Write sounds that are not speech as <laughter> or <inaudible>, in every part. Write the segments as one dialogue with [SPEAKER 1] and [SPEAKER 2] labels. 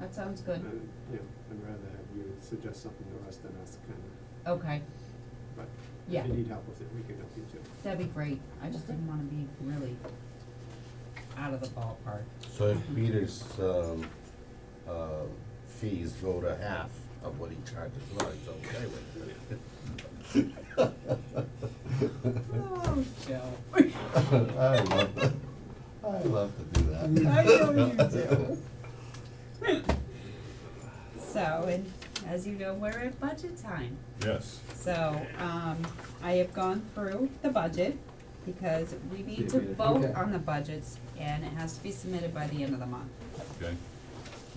[SPEAKER 1] that sounds good.
[SPEAKER 2] And, you know, I'd rather have you suggest something to us than us kind of,
[SPEAKER 1] Okay,
[SPEAKER 2] but
[SPEAKER 1] Yeah.
[SPEAKER 2] if you need help with it, we can help you too.
[SPEAKER 1] that'd be great. I just didn't wanna be really out of the ballpark.
[SPEAKER 3] So if Peter's, um, uh, fees go to half of what he charges, well, he's okay with it.
[SPEAKER 1] Oh, Joe.
[SPEAKER 3] <laughs> I love that, I love to do that.
[SPEAKER 1] I know you do. So, and as you know, we're at budget time.
[SPEAKER 4] Yes.
[SPEAKER 1] So, um, I have gone through the budget because we need to
[SPEAKER 2] Yeah,
[SPEAKER 1] vote
[SPEAKER 2] okay.
[SPEAKER 1] on the budgets and it has to be submitted by the end of the month.
[SPEAKER 4] Okay,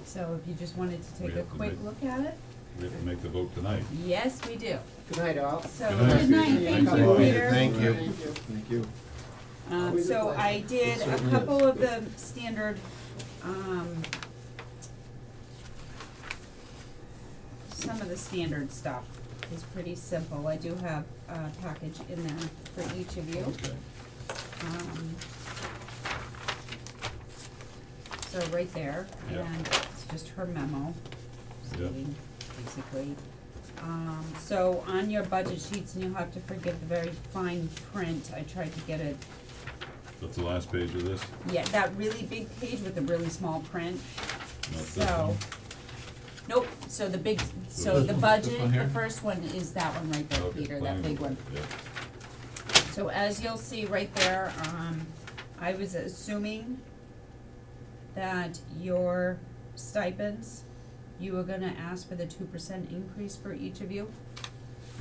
[SPEAKER 1] So if you just wanted to
[SPEAKER 4] We
[SPEAKER 1] take a
[SPEAKER 4] have to
[SPEAKER 1] quick
[SPEAKER 4] make-
[SPEAKER 1] look at it,
[SPEAKER 4] we have to make the vote tonight.
[SPEAKER 1] yes, we do.
[SPEAKER 5] Good night, all.
[SPEAKER 1] So,
[SPEAKER 4] Good night.
[SPEAKER 1] good night, thank
[SPEAKER 4] Thanks a
[SPEAKER 1] you,
[SPEAKER 4] lot.
[SPEAKER 1] Peter.
[SPEAKER 3] Thank you.
[SPEAKER 2] Thank you.
[SPEAKER 1] Um,
[SPEAKER 5] Always a
[SPEAKER 1] so
[SPEAKER 5] pleasure.
[SPEAKER 1] I did
[SPEAKER 5] It
[SPEAKER 1] a
[SPEAKER 5] certainly
[SPEAKER 1] couple
[SPEAKER 5] is.
[SPEAKER 1] of the standard, um, some of the standard stuff is pretty simple. I do have a package in there for each of you.
[SPEAKER 4] Okay.
[SPEAKER 1] Um, so right there,
[SPEAKER 4] Yeah.
[SPEAKER 1] and it's just her memo,
[SPEAKER 4] Yeah.
[SPEAKER 1] stating basically. Um, so on your budget sheets, and you'll have to forgive the very fine print, I tried to get it,
[SPEAKER 4] That's the last page of this?
[SPEAKER 1] yeah, that really big page with the really small print.
[SPEAKER 4] Not this
[SPEAKER 1] So,
[SPEAKER 4] one?
[SPEAKER 1] nope, so the big, so
[SPEAKER 4] this
[SPEAKER 1] the
[SPEAKER 4] one? This
[SPEAKER 1] budget,
[SPEAKER 4] one
[SPEAKER 1] the
[SPEAKER 4] here?
[SPEAKER 1] first one is that one right there,
[SPEAKER 4] Okay,
[SPEAKER 1] Peter, that
[SPEAKER 4] planning
[SPEAKER 1] big
[SPEAKER 4] board,
[SPEAKER 1] one.
[SPEAKER 4] Yeah,
[SPEAKER 1] So as you'll see right there, um, I was assuming that your stipends, you were gonna ask for the two percent increase for each of you.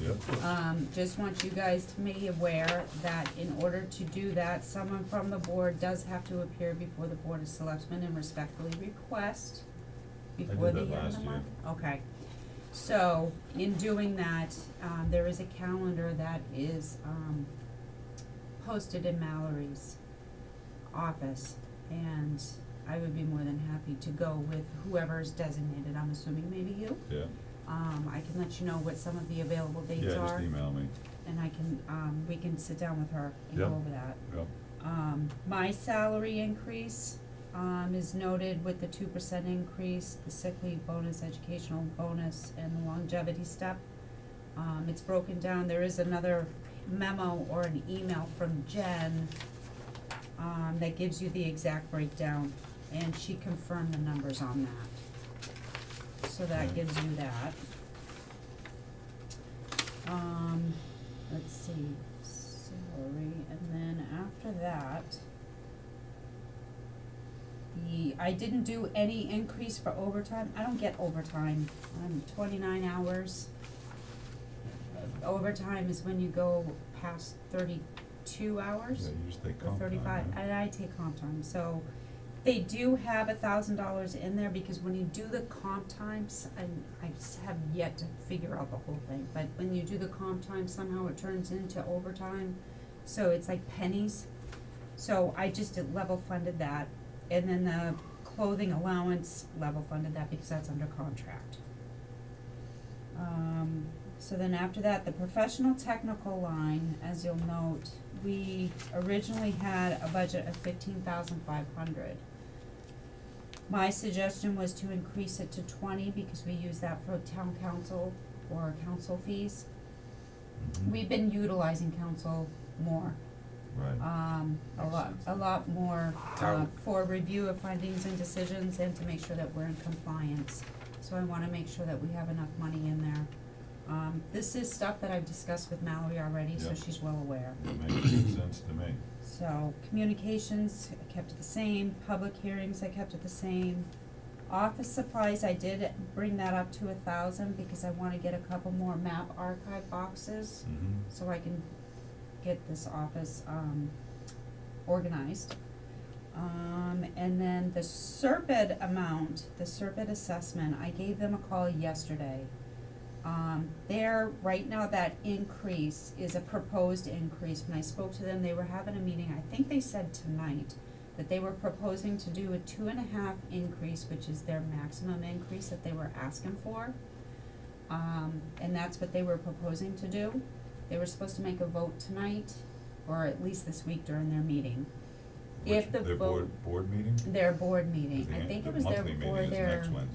[SPEAKER 4] yep,
[SPEAKER 1] Um, just want you guys to be aware that in order to do that, someone from the board does have to appear before the Board of Selectmen and respectfully request
[SPEAKER 4] did
[SPEAKER 1] before the
[SPEAKER 4] that
[SPEAKER 1] end of
[SPEAKER 4] last
[SPEAKER 1] the
[SPEAKER 4] year.
[SPEAKER 1] month. Okay. So, in doing that, um, there is a calendar that is, um, posted in Mallory's office. And I would be more than happy to go with whoever's designated, I'm assuming maybe you.
[SPEAKER 4] yeah,
[SPEAKER 1] Um, I can let you know what some of the available dates are.
[SPEAKER 4] yeah, just email me,
[SPEAKER 1] And I can, um, we can sit down with her and go
[SPEAKER 4] Yeah.
[SPEAKER 1] over that.
[SPEAKER 4] yep,
[SPEAKER 1] Um, my salary increase, um, is noted with the two percent increase, the sick leave bonus, educational bonus, and the longevity step. Um, it's broken down, there is another memo or an email from Jen, um, that gives you the exact breakdown, and she confirmed the numbers on that. So that
[SPEAKER 4] Okay.
[SPEAKER 1] gives you that. Um, let's see, salary, and then after that, the, I didn't do any increase for overtime, I don't get overtime, I'm twenty-nine hours. Uh, Overtime is when you go past thirty-two
[SPEAKER 4] yeah,
[SPEAKER 1] hours
[SPEAKER 4] you just take
[SPEAKER 1] or
[SPEAKER 4] comp time,
[SPEAKER 1] thirty-five,
[SPEAKER 4] right?
[SPEAKER 1] and I take comp time, so they do have a thousand dollars in there, because when you do the comp times, and I s- have yet to figure out the whole thing, but when you do the comp time, somehow it turns into overtime, so it's like pennies. So I just did level funded that, and then the clothing allowance level funded that, because that's under contract. Um, so then after that, the professional technical line, as you'll note, we originally had a budget of fifteen thousand five hundred. My suggestion was to increase it to twenty because we use that for town council or council fees.
[SPEAKER 4] Mhm.
[SPEAKER 1] We've been utilizing council more,
[SPEAKER 4] Right,
[SPEAKER 1] um, a
[SPEAKER 4] Makes
[SPEAKER 1] lot,
[SPEAKER 4] sense.
[SPEAKER 1] a lot more, uh,
[SPEAKER 3] Town.
[SPEAKER 1] for review of findings and decisions and to make sure that we're in compliance. So I wanna make sure that we have enough money in there. Um, this is stuff that I've discussed with Mallory already, so
[SPEAKER 4] Yeah.
[SPEAKER 1] she's well aware.
[SPEAKER 4] that makes sense to me,
[SPEAKER 1] So communications, I kept it the same, public hearings, I kept it the same. Office supplies, I did bring that up to a thousand because I wanna get a couple more map archive boxes
[SPEAKER 4] mhm,
[SPEAKER 1] so I can get this office, um, organized. Um, and then the Serpid amount, the Serpid assessment, I gave them a call yesterday. Um, there, right now, that increase is a proposed increase, when I spoke to them, they were having a meeting, I think they said tonight, that they were proposing to do a two and a half increase, which is their maximum increase that they were asking for. Um, and that's what they were proposing to do. They were supposed to make a vote tonight, or at least this week during their meeting. If
[SPEAKER 4] Which-
[SPEAKER 1] the
[SPEAKER 4] their
[SPEAKER 1] vote-
[SPEAKER 4] board, board meeting?
[SPEAKER 1] Their board meeting, I think it was their,
[SPEAKER 4] monthly meeting
[SPEAKER 1] or
[SPEAKER 4] is
[SPEAKER 1] their,
[SPEAKER 4] next Wednesday.